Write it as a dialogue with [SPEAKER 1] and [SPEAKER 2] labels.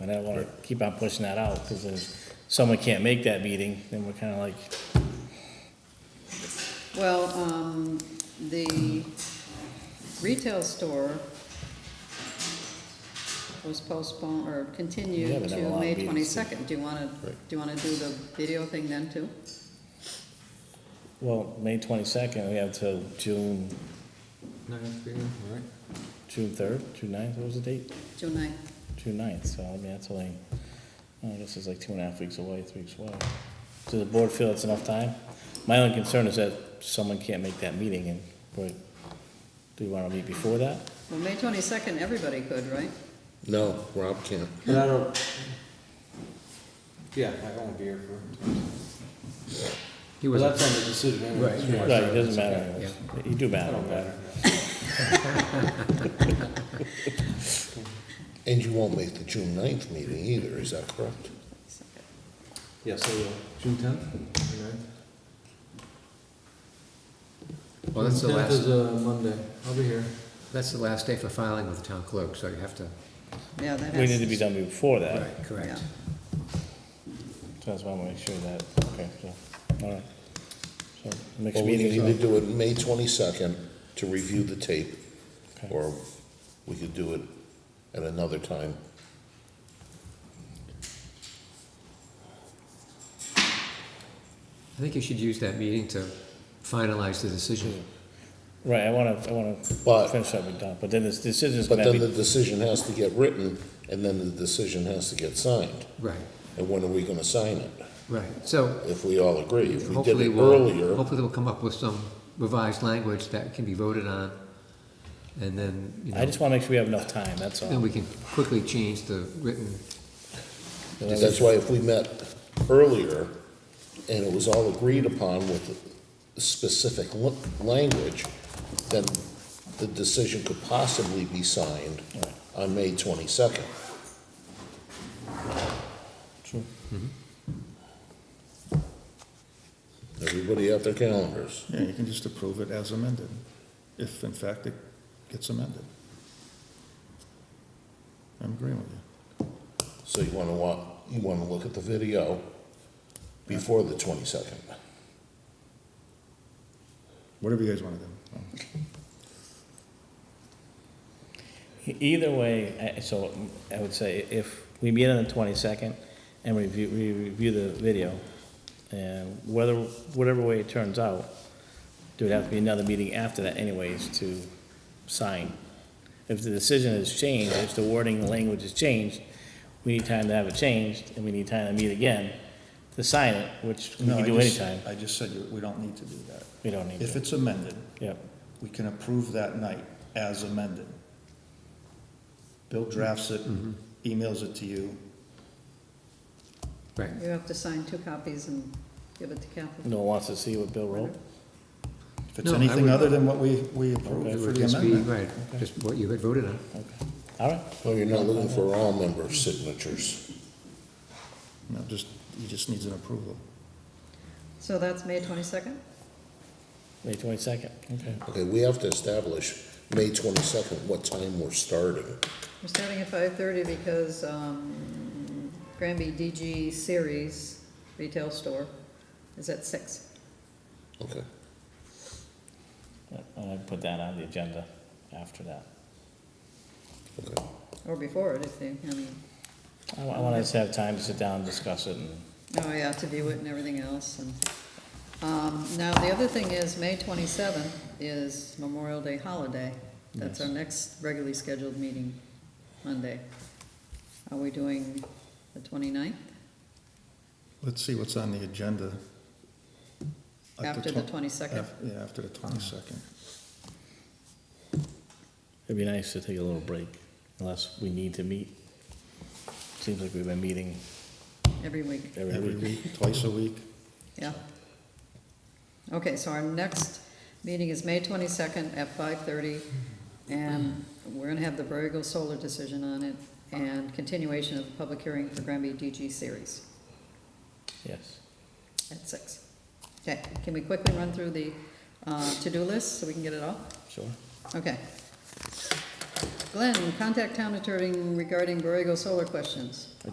[SPEAKER 1] And I don't wanna keep on pushing that out, cause if someone can't make that meeting, then we're kinda like,
[SPEAKER 2] Well, um, the retail store was postponed or
[SPEAKER 1] We
[SPEAKER 2] continued
[SPEAKER 1] haven't had a lot
[SPEAKER 2] to
[SPEAKER 1] of
[SPEAKER 2] May
[SPEAKER 1] meetings.
[SPEAKER 2] twenty-second. Do you wanna, do
[SPEAKER 1] Right.
[SPEAKER 2] you wanna do the video thing then too?
[SPEAKER 1] well, May twenty-second, we have till June,
[SPEAKER 3] Nine, three, all right.
[SPEAKER 1] June third, June ninth, what was the date?
[SPEAKER 2] June ninth?
[SPEAKER 1] June ninth, so I mean, that's only, I guess it's like two and a half weeks away, three weeks away. Does the board feel it's enough time? My only concern is that someone can't make that meeting and, but, do you wanna meet before that?
[SPEAKER 2] Well, May twenty-second, everybody could, right?
[SPEAKER 4] No, Rob can't.
[SPEAKER 3] But I don't, yeah, I won't be here for.
[SPEAKER 4] He
[SPEAKER 3] Well,
[SPEAKER 4] wasn't,
[SPEAKER 3] that's on the decision anyway.
[SPEAKER 4] Right, yeah.
[SPEAKER 1] Right, it doesn't matter, anyways. you do
[SPEAKER 3] I
[SPEAKER 1] matter,
[SPEAKER 3] don't
[SPEAKER 1] but,
[SPEAKER 3] matter.
[SPEAKER 4] and you won't make the June ninth meeting either, is that correct?
[SPEAKER 3] Yeah, so, uh, June tenth?
[SPEAKER 5] Well, that's the
[SPEAKER 3] Tenth is
[SPEAKER 5] last,
[SPEAKER 3] a Monday, I'll be here.
[SPEAKER 5] that's the last day for filing with the town clerk, so you have to,
[SPEAKER 2] Yeah, that
[SPEAKER 1] we need to
[SPEAKER 2] has,
[SPEAKER 1] be done before that.
[SPEAKER 5] right, correct.
[SPEAKER 2] Yeah.
[SPEAKER 1] So that's why I want to make sure that, okay, so, all right. So, next
[SPEAKER 4] Well, we
[SPEAKER 1] meeting,
[SPEAKER 4] can either
[SPEAKER 1] is-
[SPEAKER 4] do it May twenty-second to review the tape,
[SPEAKER 1] Okay.
[SPEAKER 4] or we could do it at another time.
[SPEAKER 5] I think you should use that meeting to finalize the decision.
[SPEAKER 1] right, I want to, I want to
[SPEAKER 4] But-
[SPEAKER 1] finish up with Don, but then this decision's
[SPEAKER 4] But
[SPEAKER 1] going to
[SPEAKER 4] then the
[SPEAKER 1] be,
[SPEAKER 4] decision has to get written, and then the decision has to get signed.
[SPEAKER 5] Right,
[SPEAKER 4] And when are we gonna sign it?
[SPEAKER 5] right. So
[SPEAKER 4] If we all agree, if we did
[SPEAKER 5] hopefully
[SPEAKER 4] it
[SPEAKER 5] we'll,
[SPEAKER 4] earlier,
[SPEAKER 5] hopefully we'll come up with some revised language that can be voted on. And then, you
[SPEAKER 1] I
[SPEAKER 5] know,
[SPEAKER 1] just want to make sure we have enough time, that's all.
[SPEAKER 5] then we can quickly change the written,
[SPEAKER 4] that's why if we met earlier, and it was all agreed upon with specific l- language, then the decision could possibly be signed on May twenty-second.
[SPEAKER 1] True.
[SPEAKER 4] Mm-hmm. Everybody have their calendars.
[SPEAKER 6] Yeah, you can just approve it as amended, if in fact it gets amended. I'm agreeing with you.
[SPEAKER 4] So you wanna wa, you wanna look at the video before the twenty-second.
[SPEAKER 6] Whatever you guys want to do.
[SPEAKER 1] E- Either way, I- so I would say if we meet on the twenty-second and review, we review the video, and whether, whatever way it turns out, there would have to be another meeting after that anyways to sign. If the decision is changed, if the wording, the language is changed, we need time to have it changed, and we need time to meet again to sign it, which we
[SPEAKER 6] No,
[SPEAKER 1] can
[SPEAKER 6] I
[SPEAKER 1] do
[SPEAKER 6] just-
[SPEAKER 1] anytime.
[SPEAKER 6] I just said you- we don't need to do that.
[SPEAKER 1] We don't need
[SPEAKER 6] If
[SPEAKER 1] to.
[SPEAKER 6] it's amended,
[SPEAKER 1] Yep,
[SPEAKER 6] we can approve that night as amended. Bill drafts it, emails it to you.
[SPEAKER 5] right.
[SPEAKER 2] you have to sign two copies and give it to Kathy.
[SPEAKER 1] no one wants to see what Bill wrote.
[SPEAKER 6] If it's
[SPEAKER 5] No, I
[SPEAKER 6] anything
[SPEAKER 5] would-
[SPEAKER 6] other than what we, we
[SPEAKER 5] It
[SPEAKER 6] approved for
[SPEAKER 5] would
[SPEAKER 6] the
[SPEAKER 5] just be,
[SPEAKER 6] amendment.
[SPEAKER 5] right, just what you had voted on.
[SPEAKER 1] All right,
[SPEAKER 4] Well, you're not looking for all member signatures.
[SPEAKER 6] No, just, he just needs an approval.
[SPEAKER 2] So that's May twenty-second?
[SPEAKER 1] May twenty-second, okay.
[SPEAKER 4] Okay, we have to establish May twenty-second, what time we're starting.
[SPEAKER 2] We're starting at five-thirty because, um, Granby DG Series Retail Store is at six.
[SPEAKER 4] Okay,
[SPEAKER 1] And I put that on the agenda after that.
[SPEAKER 4] okay.
[SPEAKER 2] Or before it, if they, I mean,
[SPEAKER 1] I wa- I want us to have time to sit down and discuss it and,
[SPEAKER 2] oh yeah, to view it and everything else and. Um, now, the other thing is, May twenty-seventh is Memorial Day holiday. That's our next regularly scheduled meeting, Monday. Are we doing the 29th
[SPEAKER 6] Let's see what's on the agenda. At
[SPEAKER 2] After the
[SPEAKER 6] twen-
[SPEAKER 2] 22nd.
[SPEAKER 6] af- Yeah, after the twenty-second.
[SPEAKER 1] it'd be nice to take a little break unless we need to meet. Seems like we've been meeting
[SPEAKER 2] every week?
[SPEAKER 1] every
[SPEAKER 6] Every
[SPEAKER 1] week.
[SPEAKER 6] week, twice a week.
[SPEAKER 2] Yeah. Okay, so our next meeting is May twenty-second at five-thirty, and we're gonna have the Borrego Solar decision on it, and continuation of the public hearing for Granby DG series
[SPEAKER 1] Yes.
[SPEAKER 2] at six. Okay, can we quickly run through the, uh, to-do list so we can get it off?
[SPEAKER 1] Sure.
[SPEAKER 2] Okay. Glenn, contact town attorney regarding Borrego solar questions.